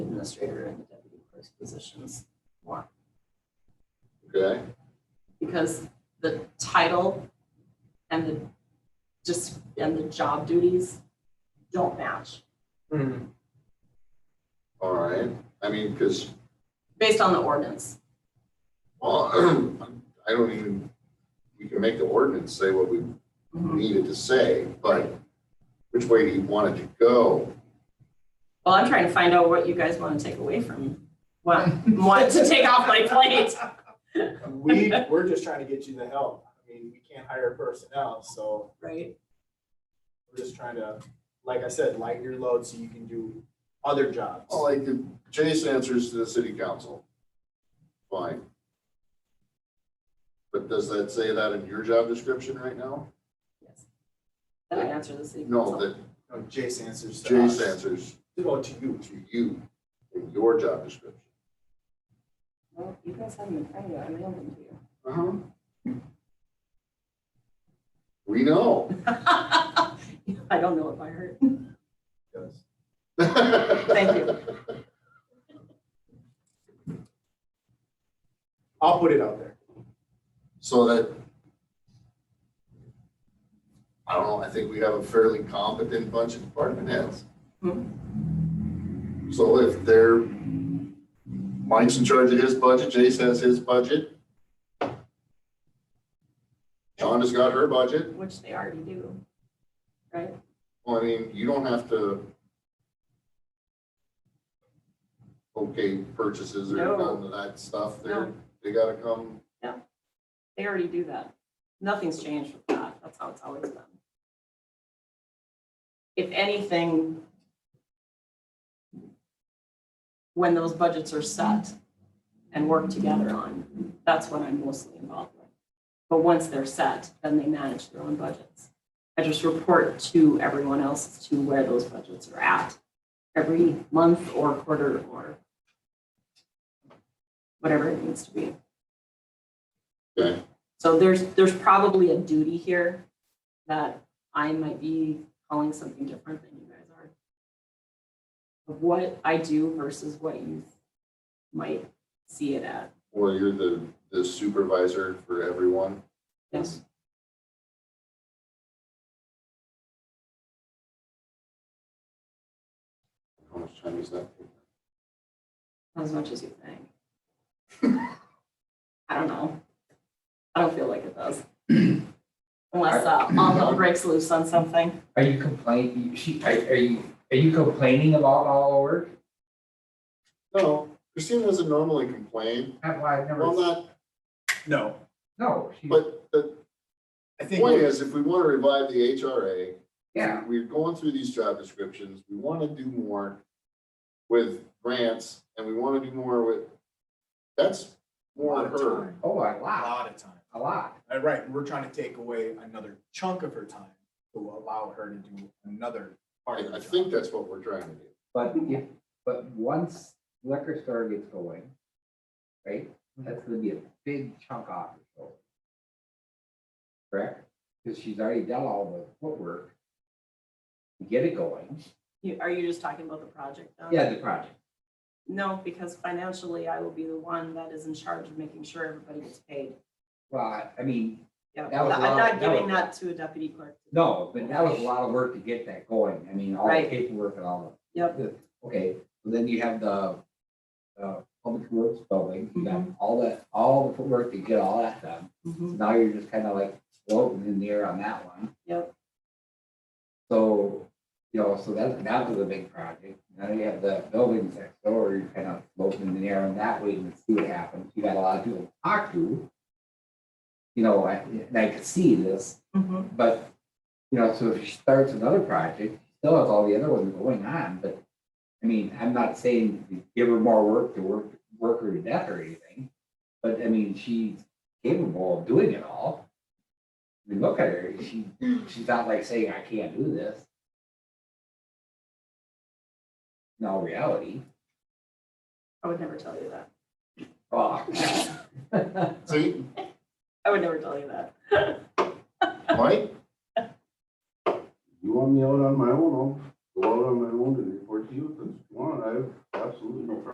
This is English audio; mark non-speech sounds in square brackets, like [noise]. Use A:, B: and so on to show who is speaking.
A: administrator and the deputy clerk's positions more.
B: Okay,
A: Because the title and the just, and the job duties don't match
C: Hmm.
B: all right. I mean, because,
A: based on the ordinance.
B: well, [clears throat] I don't even, we can make the ordinance say what we needed to say, but which way do you want it to go?
A: Well, I'm trying to find out what you guys want to take away from me. What, what to take off my plate.
C: We, we're just trying to get you the help. I mean, we can't hire personnel, so
A: Right.
C: we're just trying to, like I said, lighten your load so you can do other jobs.
B: Well, like, if Jason answers to the city council. Fine. But does that say that in your job description right now?
A: Yes. Did I answer the city
B: No,
A: council?
B: that
C: No, Jace answers to us.
B: Jason answers
C: Oh, to you.
B: to you in your job description.
A: Well, you guys have them in front of you. I mailed them to you.
B: Uh-huh. We know. [laughs]
A: [laughs] I don't know if I heard.
C: Yes.
B: Thank
A: you.
C: I'll put it out there.
B: So that. I don't know, I think we have a fairly competent bunch of department heads.
A: Hmm.
B: So if they're, Mike's in charge of his budget, Jason has his budget. John has got her budget,
A: Which they already do. Right?
B: well, I mean, you don't have to. Okay, purchases or
A: No.
B: none of that stuff, they're,
A: No.
B: they gotta come,
A: They already do that. Nothing's changed with that. That's how it's always been. If anything, when those budgets are set and worked together on, that's what I'm mostly involved with. But once they're set, then they manage their own budgets. I just report to everyone else as to where those budgets are at every month or quarter or whatever it needs to be.
B: okay?
A: So there's, there's probably a duty here that I might be calling something different than you guys are. Of what I do versus what you might see it at.
B: Well, you're the, the supervisor for everyone.
A: Yes.
B: How much time is that?
A: As much as you think. [laughs] I don't know. I don't feel like it does. [clears throat] Unless, uh, all hell breaks loose on something.
D: Are you complaining, she, are are you, are you complaining about all our work?
B: No, Christine doesn't normally complain.
D: That's why I've
B: Well,
D: never,
B: not,
C: No,
D: no, she,
B: but the
C: I think.
B: point is, if we want to revive the HRA,
D: yeah,
B: we're going through these job descriptions, we want to do more with grants, and we want to do more with, that's more
C: Lot of
B: her.
C: time.
D: oh, a
C: A
D: lot,
C: lot of time.
D: a lot.
C: Uh, Right, we're trying to take away another chunk of her time to allow her to do another part of
B: I,
C: the
B: I
C: job.
B: think that's what we're trying to do.
D: But if, but once liquor store gets going, right,
B: Mm-hmm.
D: that's gonna be a big chunk off her shoulder. Correct? Because she's already done all the footwork to get it going.
A: You, are you just talking about the project though?
D: Yeah, the project.
A: No, because financially I will be the one that is in charge of making sure everybody gets paid.
D: Well, I- I mean,
A: Yeah,
D: That was
A: I'm
D: a lot-
A: not
D: that was-
A: giving that to a deputy clerk.
D: No, but that was a lot of work to get that going. I mean, all the
A: Right.
D: paperwork and all that.
A: Yep.
D: Okay, well, then you have the, uh, public works building, you got all that, all the footwork to get all that done.
A: Mm-hmm.
D: So Now you're just kind of like floating in the air on that one.
A: Yep.
D: So, you know, so that, that was a big project. Now you have the buildings next door, you're kind of floating in the air on that way and see what happens. You got a lot of people to talk to. You know, I, and I could see this,
A: Mhm.
D: but, you know, so if she starts another project, still has all the other ones going on, but, I mean, I'm not saying to give her more work to work, work her to death or anything. But I mean, she's capable of doing it all. I mean, look at her, she, she's not like saying, I can't do this. In all reality,
A: I would never tell you that.
D: fuck.
B: See,
A: I would never tell you that.
B: Mike? You want me out on my own,
E: go out on my own and report to you, because, come on, I have absolutely no problem